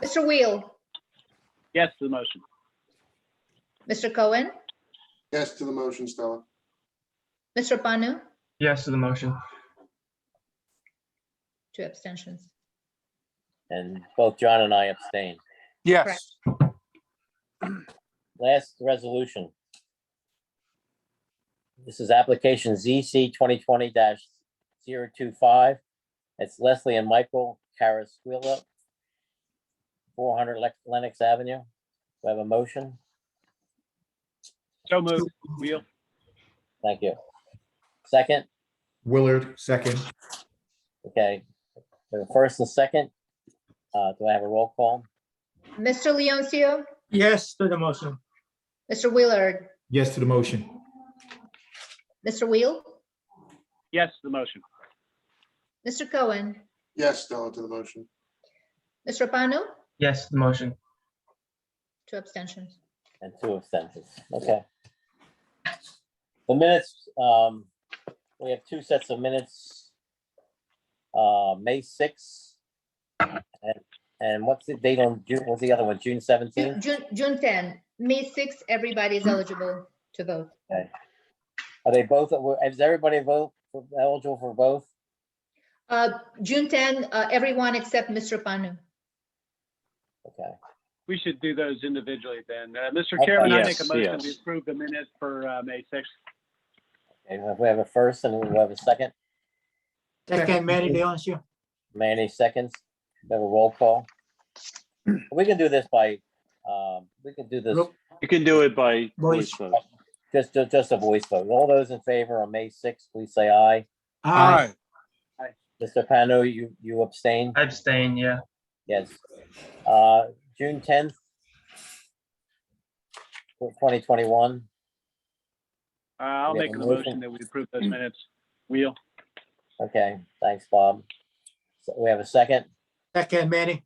Mr. Wheel, Yes to the motion. Mr. Cohen, Yes to the motion, Stella. Mr. Panu, Yes to the motion. two abstentions. And both John and I abstain. Yes, Last resolution. This is application ZC twenty twenty 25 It's Leslie and Michael Carasquilla, four hundred Lenox Avenue. We have a motion. So moved. Wheel. Thank you. Second, Willard, second. okay. The first and second. Uh, do I have a roll call? Mr. Leoncio, Yes to the motion. Mr. Willard, Yes to the motion. Mr. Wheel, Yes to the motion. Mr. Cohen, Yes, Stella to the motion. Mr. Panu, Yes to the motion. two abstentions. And two abstentions, okay. The minutes, um, we have two sets of minutes. Uh, May sixth. And, and what's the date on June, what's the other one, June Ju- seventeenth? June, June 10, May 6, everybody is eligible to vote. Are they both, is everybody vote, eligible for both? Uh, June 10, uh, everyone except Mr. Panu. Okay, We should do those individually then. Uh, Mr. Okay. Chairman, I make Yes, a motion to yes. approve the minutes for, uh, May sixth. and we have a first and we have a second, Second, Manny Leoncio. Manny seconds, we have a roll call. We can do this by, um, we can do this, Nope. you can do it by Voice. voice vote. just, just just a voice vote. All those in favor on May sixth, please say aye. Aye. Mr. Pano, you, you abstain? Abstain, yeah. Yes. Uh, June tenth, twenty twenty-one, Uh, I'll We have make a a motion. motion that we approve those minutes. Wheel. okay, thanks, Bob. So we have a second. Second, Manny.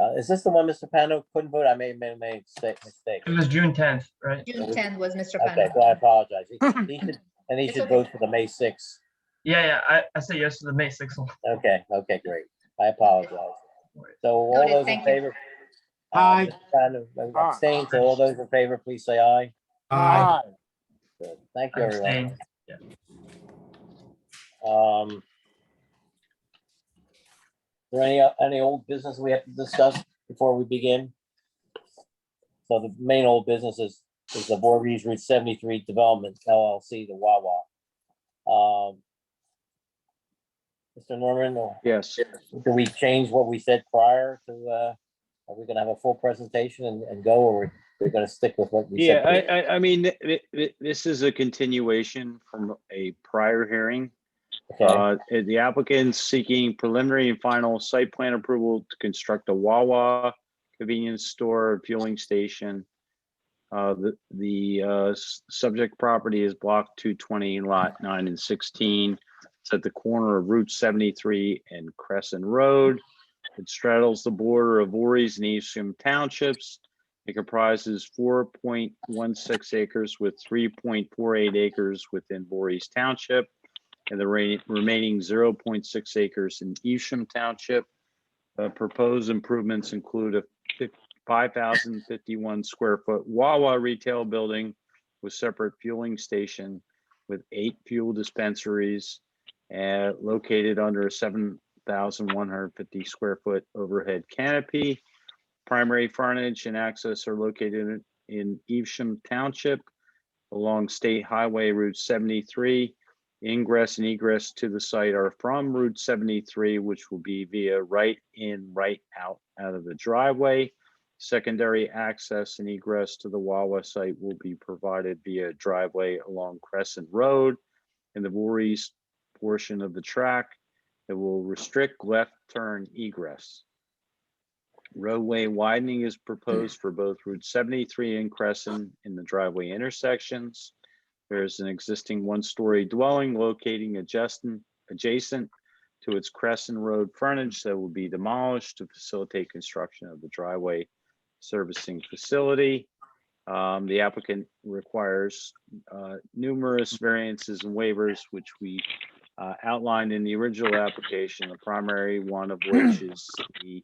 Uh, is this the one Mr. Pano couldn't vote? I may, may, may mistake, mistake. It was June tenth, right? June 10 was Mr. Okay, Panu. so I apologize. He- he should- And he It's should okay. vote for the May sixth. Yeah, yeah, I, I say yes to the May sixth one. Okay, okay, great. I apologize. So all Noted, those in thank you. favor? Aye. Abstain, so all those in favor, please say aye. Aye. Good. Thank you, everyone. Abstain. Um. There any, any old business we have to discuss before we begin? So the main old business is, is the Voorhees Route seventy-three Development LLC, the Wawa. Um. Mr. Norman, or Yes, do we change what we said prior to, uh, are we gonna have a full presentation and, and go, or we're gonna stick with what we yeah, said? I, I, I mean, th- th- th- this is a continuation from a prior hearing. Okay, Uh, The applicant's seeking preliminary and final site plan approval to construct a Wawa convenience store and fueling station. Uh, The, the uh, s- subject property is block 220, lot 9 and 16. It's at the corner of Route 73 and Crescent Road. It straddles the border of Voorhees and Eastham Townships. It comprises 4.16 acres with 3.48 acres within Voorhees Township and the re- remaining 0.6 acres in Evesham Township. Uh, Proposed improvements include a fif- 5,051 square foot Wawa retail building with separate fueling station with eight fuel dispensaries uh, located under a 7,150 square foot overhead canopy. Primary frontage and access are located in- in Evesham Township along State Highway Route 73 ingress and egress to the site are from Route 73, which will be via right in, right out, out of the driveway. Secondary access and egress to the Wawa site will be provided via driveway along Crescent Road in the Voorhees portion of the track that will restrict left turn egress. Roadway widening is proposed for both Route 73 and Crescent in the driveway intersections. There is an existing one-story dwelling locating adjacent, adjacent to its Crescent Road frontage that will be demolished to facilitate construction of the driveway servicing facility. Um, the applicant requires, uh, numerous variances and waivers, which we, uh, outlined in the original application, the primary one of which is the